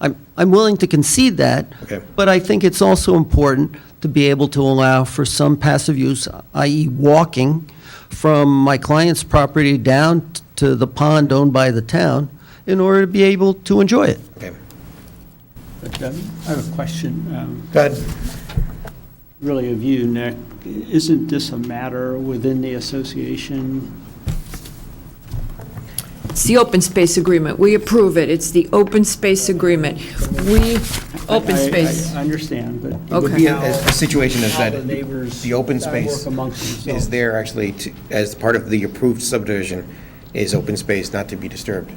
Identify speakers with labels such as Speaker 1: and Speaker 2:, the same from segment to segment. Speaker 1: I'm, I'm willing to concede that.
Speaker 2: Okay.
Speaker 1: But I think it's also important to be able to allow for some passive use, i.e. walking from my client's property down t- to the pond owned by the town in order to be able to enjoy it.
Speaker 2: Okay.
Speaker 3: But um, I have a question, um,
Speaker 2: Go ahead.
Speaker 3: really of you, Nick. Isn't this a matter within the association?
Speaker 4: It's the open space agreement. We approve it. It's the open space agreement. We, open
Speaker 3: I- I-
Speaker 4: space.
Speaker 3: I understand, but.
Speaker 2: It would be a, a situation is
Speaker 3: How
Speaker 2: that
Speaker 3: the neighbors
Speaker 2: the open
Speaker 3: work
Speaker 2: space
Speaker 3: amongst themselves.
Speaker 2: is there actually to, as part of the approved subdivision is open space not to be disturbed.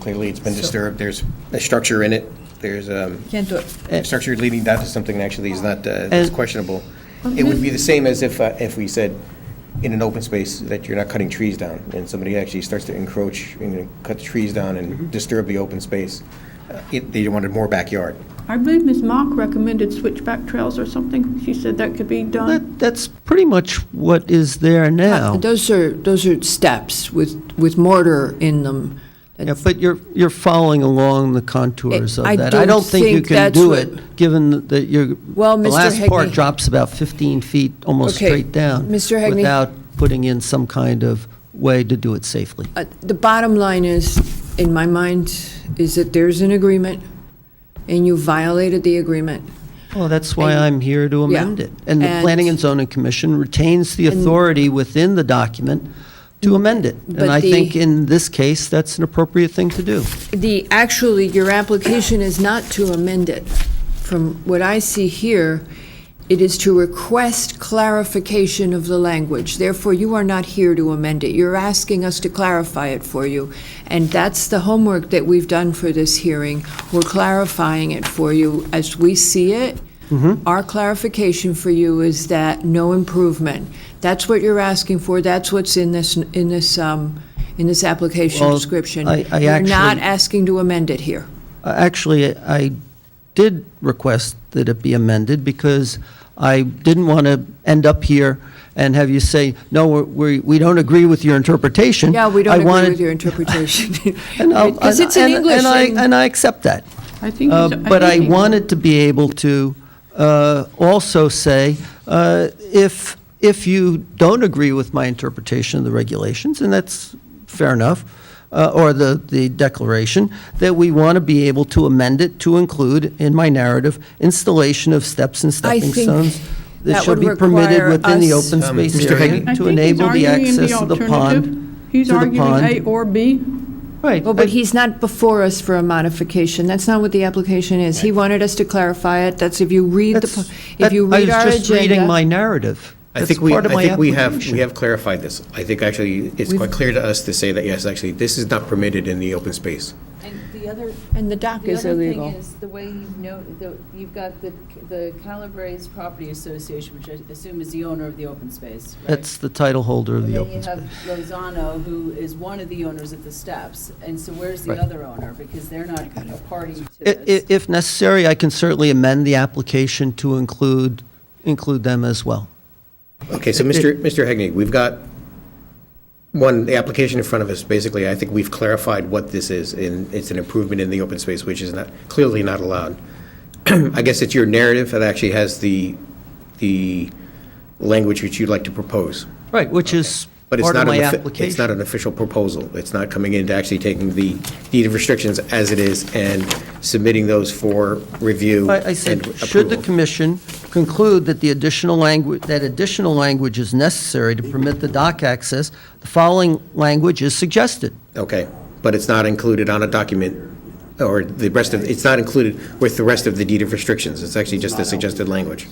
Speaker 2: Clearly, it's been disturbed. There's a structure in it. There's um,
Speaker 4: Can't do it.
Speaker 2: a structure leading down to something that actually is not, uh, is
Speaker 1: And-
Speaker 2: questionable. It would be the same as if, uh, if we said in an open space that you're not cutting trees down and somebody actually starts to encroach and cut the trees down
Speaker 3: Mm-hmm.
Speaker 2: and disturb the open space. Uh, it- They wanted more backyard.
Speaker 5: I believe Ms. Mock recommended switchback trails or something. She said that could be done.
Speaker 1: That, that's pretty much what is there now.
Speaker 4: Uh, Those are, those are steps with, with mortar in them.
Speaker 1: Yeah, but you're, you're following along the contours of
Speaker 4: I
Speaker 1: that.
Speaker 4: don't
Speaker 1: don't think you
Speaker 4: think
Speaker 1: can
Speaker 4: that's
Speaker 1: do
Speaker 4: what-
Speaker 1: it, given that you're,
Speaker 4: Well,
Speaker 1: the
Speaker 4: Mr.
Speaker 1: last part
Speaker 4: Hegney-
Speaker 1: drops about 15 feet almost
Speaker 4: Okay,
Speaker 1: straight down.
Speaker 4: Mr. Hegney-
Speaker 1: Without putting in some kind of way to do it safely.
Speaker 4: Uh, The bottom line is, in my mind, is that there's an agreement, and you violated the agreement.
Speaker 1: Well, that's why
Speaker 4: And-
Speaker 1: I'm here to
Speaker 4: yeah.
Speaker 1: amend it. And the
Speaker 4: And-
Speaker 1: Planning and Zoning Commission retains the authority within the document to amend it. And
Speaker 4: But
Speaker 1: I
Speaker 4: the-
Speaker 1: think in this case, that's an appropriate thing to do.
Speaker 4: The, actually, your application is not to amend it. From what I see here, it is to request clarification of the language. Therefore, you are not here to amend it. You're asking us to clarify it for you. And that's the homework that we've done for this hearing. We're clarifying it for you as we see it.
Speaker 1: Mm-hmm.
Speaker 4: Our clarification for you is that no improvement. That's what you're asking for. That's what's in this, in this, um, in this application
Speaker 1: Well,
Speaker 4: description.
Speaker 1: I- I
Speaker 4: You're not
Speaker 1: actually-
Speaker 4: asking to amend it here.
Speaker 1: Uh, Actually, I did request that it be amended because I didn't want to end up here and have you say, no, we're- we, we don't agree with your interpretation.
Speaker 4: Yeah, we
Speaker 1: I
Speaker 4: don't agree
Speaker 1: wanted-
Speaker 4: with your interpretation.
Speaker 1: and I'll-
Speaker 4: Because it's in
Speaker 1: and-
Speaker 4: English.
Speaker 1: And I,
Speaker 4: and-
Speaker 1: and I accept that.
Speaker 5: I think.
Speaker 1: Uh,
Speaker 5: it's-
Speaker 1: But I
Speaker 5: think-
Speaker 1: wanted to be able to uh, also say, uh, if, if you don't agree with my interpretation of the regulations, and that's fair enough, uh, or the, the declaration, that we want to be able to amend it to include in my narrative installation of steps and
Speaker 4: I
Speaker 1: stepping
Speaker 4: think
Speaker 1: stones that
Speaker 4: that
Speaker 1: shall
Speaker 4: would
Speaker 1: be permitted
Speaker 4: require
Speaker 1: within the
Speaker 4: us-
Speaker 1: open
Speaker 2: Um,
Speaker 1: space
Speaker 2: Mr. Hegney.
Speaker 1: area
Speaker 5: I
Speaker 1: to
Speaker 5: think he's
Speaker 1: enable the
Speaker 5: arguing
Speaker 1: access of the
Speaker 5: alternative.
Speaker 1: pond.
Speaker 5: He's
Speaker 1: to the
Speaker 5: arguing
Speaker 1: pond.
Speaker 5: A or B.
Speaker 1: Right.
Speaker 4: Well, but he's not before us for a modification. That's not what the application is. He wanted us to clarify it. That's if you read the,
Speaker 1: That's-
Speaker 4: po-
Speaker 1: that-
Speaker 4: if you read our
Speaker 1: I was just reading my
Speaker 4: agenda.
Speaker 1: narrative.
Speaker 2: I
Speaker 1: That's
Speaker 2: think we, I
Speaker 1: part of my
Speaker 2: think we have,
Speaker 1: application.
Speaker 2: we have clarified this. I think actually, it's quite clear to us to say that, yes, actually, this is not permitted in the open space.
Speaker 6: And the other,
Speaker 4: And the dock
Speaker 6: the
Speaker 4: is
Speaker 6: other thing
Speaker 4: illegal.
Speaker 6: is, the way you've know, the- you've got the, the Calabrese Property Association, which I assume is the owner of the open space, right?
Speaker 1: That's the title holder of
Speaker 6: And
Speaker 1: the
Speaker 6: then you
Speaker 1: open
Speaker 6: have
Speaker 1: space.
Speaker 6: Lozano, who is one of the owners of the steps, and so where's the
Speaker 1: Right.
Speaker 6: other owner? Because they're not a party to
Speaker 1: I- i-
Speaker 6: this.
Speaker 1: If necessary, I can certainly amend the application to include, include them as well.
Speaker 2: Okay, so Mr. Mr. Hegney, we've got one, the application in front of us, basically, I think we've clarified what this is, and it's an improvement in the open space, which is not, clearly not allowed. I guess it's your narrative that actually has the, the language which you'd like to propose.
Speaker 1: Right, which is
Speaker 2: But it's
Speaker 1: part of
Speaker 2: not,
Speaker 1: my
Speaker 2: an offi- it's
Speaker 1: application.
Speaker 2: not an official proposal. It's not coming in to actually taking the deed of restrictions as it is and submitting those for review
Speaker 1: I I
Speaker 2: and
Speaker 1: said, should the
Speaker 2: approval.
Speaker 1: commission conclude that the additional language, that additional language is necessary to permit the dock access, the following language is suggested.
Speaker 2: Okay, but it's not included on a document, or the rest of, it's not included with the rest of the deed of restrictions. It's actually just the suggested language,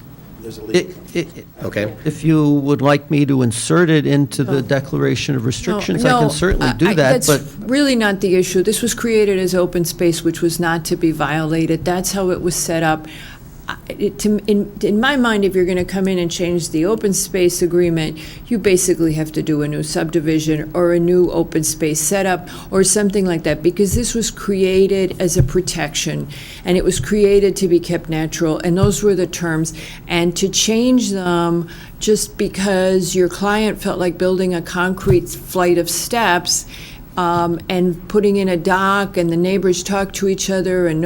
Speaker 1: I- i- i-
Speaker 2: okay?
Speaker 1: If you would like me to insert it into the declaration of restrictions, I
Speaker 4: No,
Speaker 1: can certainly
Speaker 4: I- I-
Speaker 1: do that, but.
Speaker 4: That's really not the issue. This was created as open space, which was not to be violated. That's how it was set up. I- it- to- In in my mind, if you're going to come in and change the open space agreement, you basically have to do a new subdivision or a new open space setup or something like that, because this was created as a protection, and it was created to be kept natural, and those were the terms. And to change them just because your client felt like building a concrete flight of steps um, and putting in a dock, and the neighbors talk to each other, and